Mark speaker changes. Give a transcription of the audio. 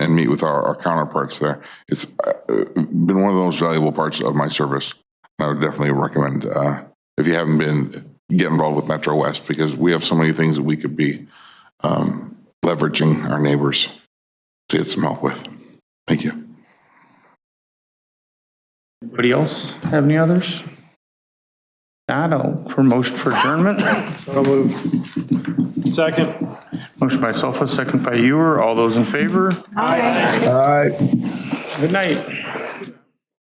Speaker 1: and meet with our, our counterparts there. It's uh, uh, been one of the most valuable parts of my service. I would definitely recommend, uh, if you haven't been, get involved with Metro West because we have so many things that we could be um, leveraging our neighbors to get some help with. Thank you.
Speaker 2: Anybody else have any others? Not, oh, for motion for adjournment?
Speaker 3: Second.
Speaker 2: Motion by Sofa, second by Ewer. All those in favor?
Speaker 4: Aye.
Speaker 2: Good night.